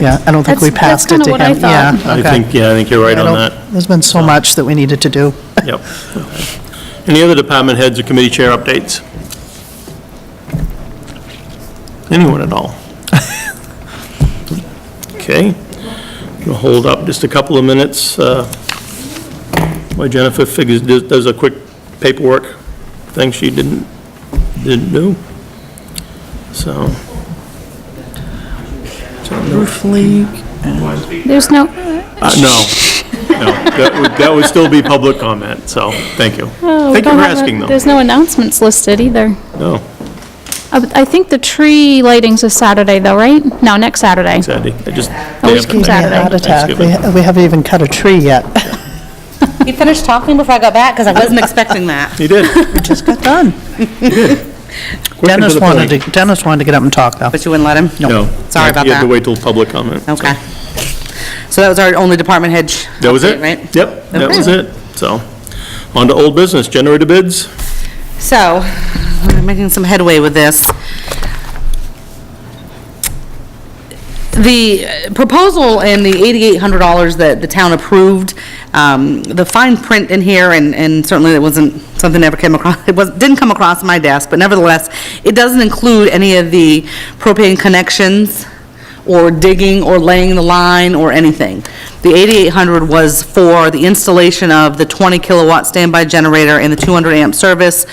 yeah, I don't think we That's- that's passed it to kinda him. what I Yeah, thought. I okay. think, yeah, I think you're right I on don't- that. There's been so much that we needed to do. Yep. Any other department heads or committee chair updates? Anyone at all? Okay. We'll hold up just a couple of minutes uh, while Jennifer figures, does- does a quick paperwork thing she didn't, didn't do. So, Roof leak. There's no, uh, no, no, that would, that would still be public comment, so, thank you. oh, we Thank you don't for have a- asking, though. There's no announcements listed either. No, Uh, but I think the tree lighting's is Saturday though, right? No, next Saturday. Saturday, I just. Always Yeah, keeps Give me a Saturday. heart attack. We Thanksgiving. we haven't even cut a tree yet. You finished talking before I got back, because I wasn't expecting that. He did. Just got done. Quick and Dennis the wanted point. to, Dennis wanted to get up and talk, though. But you wouldn't let him? No. Sorry about You have to that. wait till public comment. so. Okay. So that was our only department head. sh- That was it? update, Right? Yep, that was it. So, on to old business, generator bids. So, we're making some headway with this. The proposal and the $8,800 that the town approved, um, the fine print in here, and and certainly it wasn't, something that ever came across, it was, didn't come across my desk, but nevertheless, it doesn't include any of the propane connections, or digging, or laying the line, or anything. The 8,800 was for the installation of the 20 kilowatt standby generator and the 200 amp service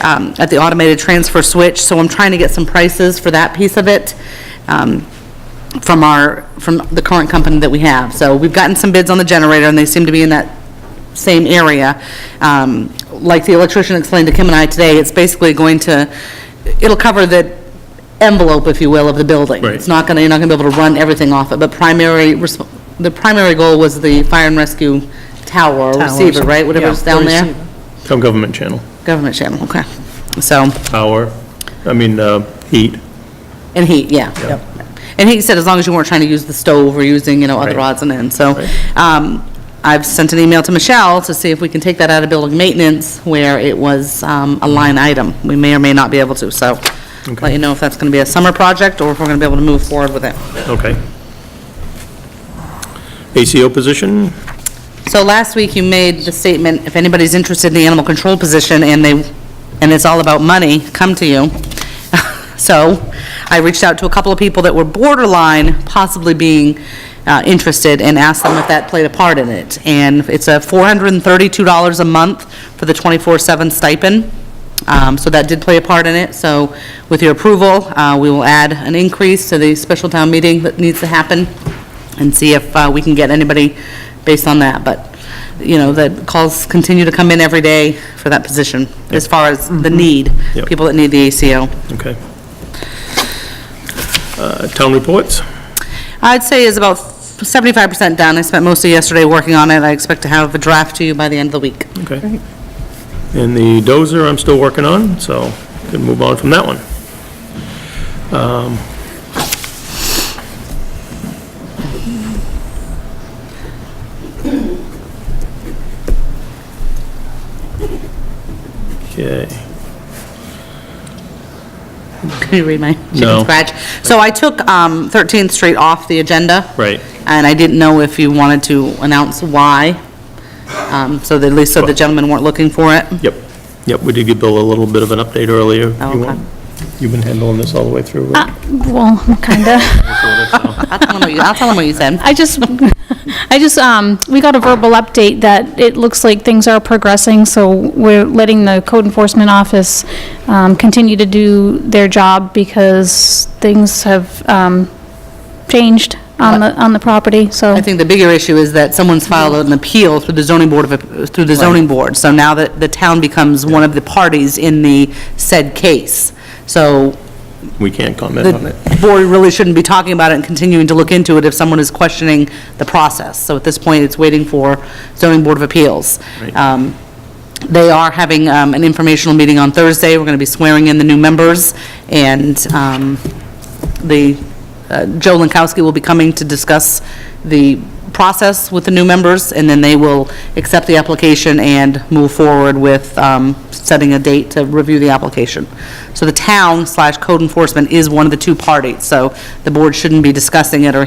um, at the automated transfer switch, so I'm trying to get some prices for that piece of it. Um, from our, from the current company that we have. So we've gotten some bids on the generator, and they seem to be in that same area. Um, Like the electrician explained to Kim and I today, it's basically going to, it'll cover the envelope, if you will, of the building. Right. It's not gonna, you're not gonna be able to run everything off it, but primary, resp- the primary goal was the fire and rescue tower, or Towers. receiver, right? Whatever's down there? receiver. Town government channel, Government channel, okay. So, power, I mean, uh, heat. And heat, yeah. Yep. And he said as long as you weren't trying to use the stove or using, you know, other Right. odds and ends, so. Right. um, I've sent an email to Michelle to see if we can take that out of building maintenance where it was um, a line item. We may or may not be able to, so let Okay. you know if that's going to be a summer project or if we're going to be able to move forward with it. Okay. ACO position, So last week, you made the statement, if anybody's interested in the animal control position and they, and it's all about money, come to you. So I reached out to a couple of people that were borderline possibly being uh, interested and asked them if that played a part in it. And it's a $432 a month for the 24/7 stipend. Um, So that did play a part in it. So with your approval, uh, we will add an increase to the special town meeting that needs to happen and see if uh, we can get anybody based on that. But, you know, the calls continue to come in every day for that position as far as the need, Yep. people that need the ACO. okay. Uh, Town reports, I'd say is about 75% done. I spent most of yesterday working on it. I expect to have a draft to you by the end of the week. okay. And the dozer I'm still working on, so can move on from that one. Um, Okay. Can you read my No. chicken scratch? So I took um, 13th Street off the agenda. Right. And I didn't know if you wanted to announce why, um, so that at least so the gentlemen weren't looking for it. Yep, yep, we did give Bill a little bit of an update earlier. Oh, You okay. want- You've been handling this all the way through, right? Well, kinda. Uh. I'll tell them what you, I'll tell them what you said. I just, I just, um, we got a verbal update that it looks like things are progressing, so we're letting the code enforcement office, um, continue to do their job because things have, um, changed on the, on the property, so. I think the bigger issue is that someone's filed an appeal through the zoning board of, through the zoning board. So now that the town becomes one of the parties in the said case. So We can't comment on it. the board really shouldn't be talking about it and continuing to look into it if someone is questioning the process. So at this point, it's waiting for zoning board of appeals. Right. Um, They are having um, an informational meeting on Thursday. We're going to be swearing in the new members, and um, the, uh, Joe Lankowski will be coming to discuss the process with the new members, and then they will accept the application and move forward with um, setting a date to review the application. So the town slash code enforcement is one of the two parties, so the board shouldn't be discussing it or